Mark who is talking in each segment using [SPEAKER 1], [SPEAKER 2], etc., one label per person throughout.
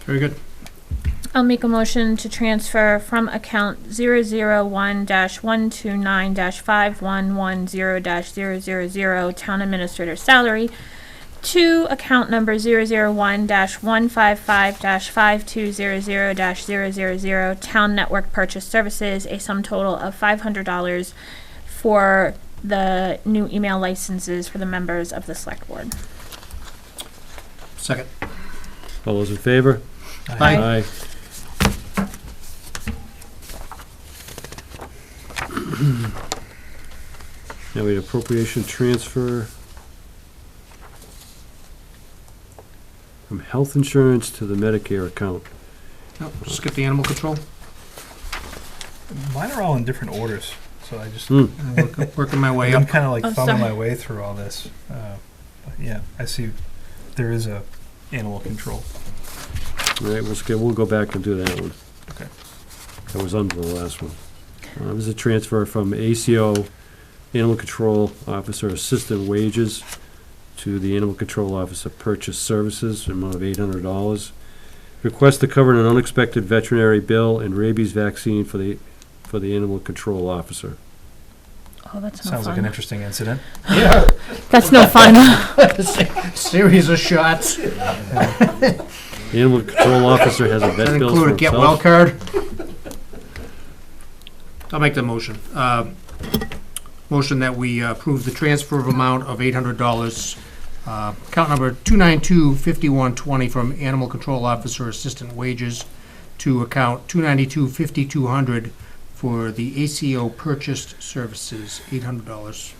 [SPEAKER 1] Very good.
[SPEAKER 2] I'll make a motion to transfer from account zero zero one dash one two nine dash five one one zero dash zero zero zero town administrator salary to account number zero zero one dash one five five dash five two zero zero dash zero zero zero town network purchase services, a sum total of five hundred dollars for the new email licenses for the members of the select board.
[SPEAKER 1] Second.
[SPEAKER 3] All those in favor?
[SPEAKER 1] Aye.
[SPEAKER 3] Now we have appropriation transfer from health insurance to the Medicare account.
[SPEAKER 1] Nope, Skip the animal control.
[SPEAKER 4] Mine are all in different orders, so I just
[SPEAKER 3] Hmm,
[SPEAKER 1] I'm work- Working my way
[SPEAKER 4] I'm
[SPEAKER 1] up.
[SPEAKER 4] kind of like
[SPEAKER 2] Oh,
[SPEAKER 4] thumbing
[SPEAKER 2] sorry.
[SPEAKER 4] my way through all this. Uh, but yeah, I see there is a animal control.
[SPEAKER 3] all right, let's go, we'll go back and do that one.
[SPEAKER 4] Okay.
[SPEAKER 3] That was under the last one. Uh, this is a transfer from ACO, Animal Control Officer Assistant Wages, to the Animal Control Officer Purchase Services, an amount of eight hundred dollars. Request to cover an unexpected veterinary bill and rabies vaccine for the, for the Animal Control Officer.
[SPEAKER 2] Oh, that's no
[SPEAKER 4] Sounds like an
[SPEAKER 2] fun.
[SPEAKER 4] interesting incident.
[SPEAKER 1] Yeah.
[SPEAKER 2] That's no fun.
[SPEAKER 1] Series of shots.
[SPEAKER 3] The Animal Control Officer has a
[SPEAKER 1] That
[SPEAKER 3] vet bill for
[SPEAKER 1] include a get well
[SPEAKER 3] himself.
[SPEAKER 1] card. I'll make the motion. Um, Motion that we uh, approve the transfer of amount of eight hundred dollars. uh, Account number two nine two fifty-one twenty from Animal Control Officer Assistant Wages to account two ninety-two fifty-two hundred for the ACO Purchased Services, eight hundred dollars.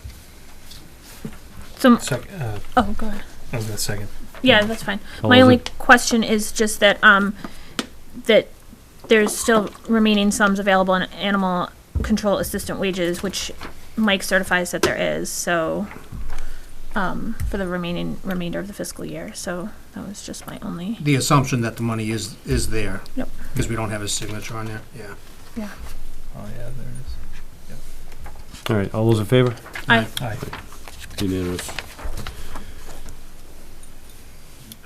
[SPEAKER 2] So,
[SPEAKER 4] So, uh,
[SPEAKER 2] oh, go ahead.
[SPEAKER 4] I was gonna second.
[SPEAKER 2] Yeah, that's fine.
[SPEAKER 3] All
[SPEAKER 2] My
[SPEAKER 3] those
[SPEAKER 2] only
[SPEAKER 3] in-
[SPEAKER 2] question is just that, um, that there's still remaining sums available in animal control assistant wages, which Mike certifies that there is, so, um, for the remaining, remainder of the fiscal year, so that was just my only,
[SPEAKER 1] The assumption that the money is, is there.
[SPEAKER 2] Yep.
[SPEAKER 1] Because we don't have his signature on there, yeah.
[SPEAKER 4] Oh yeah, there it
[SPEAKER 3] All right, all those in favor?
[SPEAKER 2] I,
[SPEAKER 4] is. Aye.
[SPEAKER 3] Unanimous.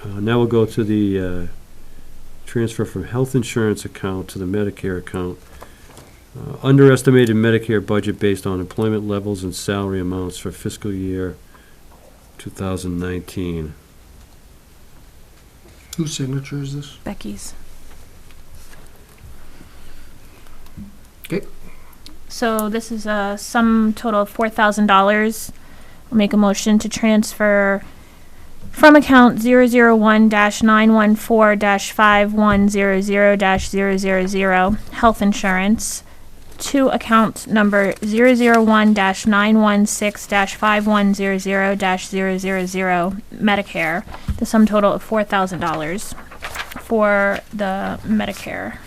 [SPEAKER 3] Uh, Now we'll go to the uh, transfer from health insurance account to the Medicare account. Uh, Underestimated Medicare budget based on employment levels and salary amounts for fiscal year 2019.
[SPEAKER 1] Whose signature is this?
[SPEAKER 2] Becky's.
[SPEAKER 1] 'Kay.
[SPEAKER 2] So this is a sum total of four thousand dollars. I'll make a motion to transfer from account zero zero one dash nine one four dash five one zero zero dash zero zero zero health insurance to account number zero zero one dash nine one six dash five one zero zero dash zero zero zero Medicare the sum total of four thousand dollars for the Medicare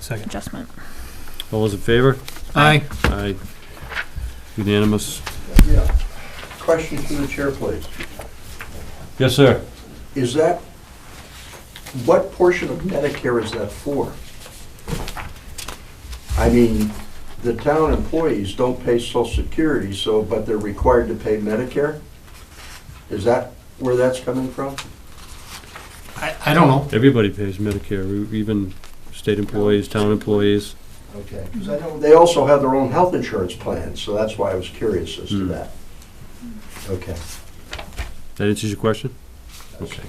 [SPEAKER 4] Second.
[SPEAKER 2] adjustment.
[SPEAKER 3] All those in favor?
[SPEAKER 1] Aye.
[SPEAKER 3] Aye. Unanimous.
[SPEAKER 5] Yeah. Question to the chair, please.
[SPEAKER 3] Yes, sir.
[SPEAKER 5] Is that, what portion of Medicare is that for? I mean, the town employees don't pay social security, so, but they're required to pay Medicare? Is that where that's coming from?
[SPEAKER 1] I, I don't know.
[SPEAKER 3] Everybody pays Medicare, e-, even state employees, town employees.
[SPEAKER 5] Okay. 'Cause I know they also have their own health insurance plan, so that's why I was curious as to
[SPEAKER 3] Hmm.
[SPEAKER 5] that. Okay.
[SPEAKER 3] That answers your question? Okay.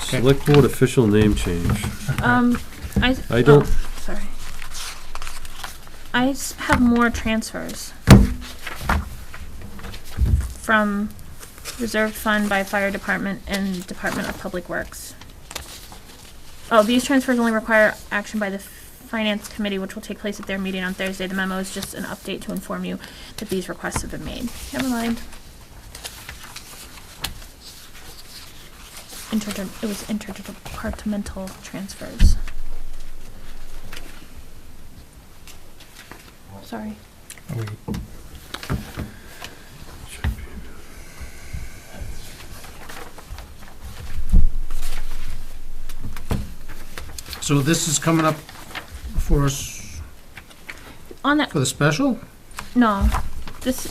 [SPEAKER 3] Select Board official name change.
[SPEAKER 2] Um, I.
[SPEAKER 3] I don't-
[SPEAKER 2] oh, Sorry. I s- have more transfers. From reserved fund by fire department and Department of Public Works. Oh, these transfers only require action by the finance committee, which will take place at their meeting on Thursday. The memo is just an update to inform you that these requests have been made. Never mind. Interdep it was interdepartmental transfers. Sorry.
[SPEAKER 4] Are we
[SPEAKER 1] So this is coming up for us
[SPEAKER 2] On that,
[SPEAKER 1] for the special?
[SPEAKER 2] no, this,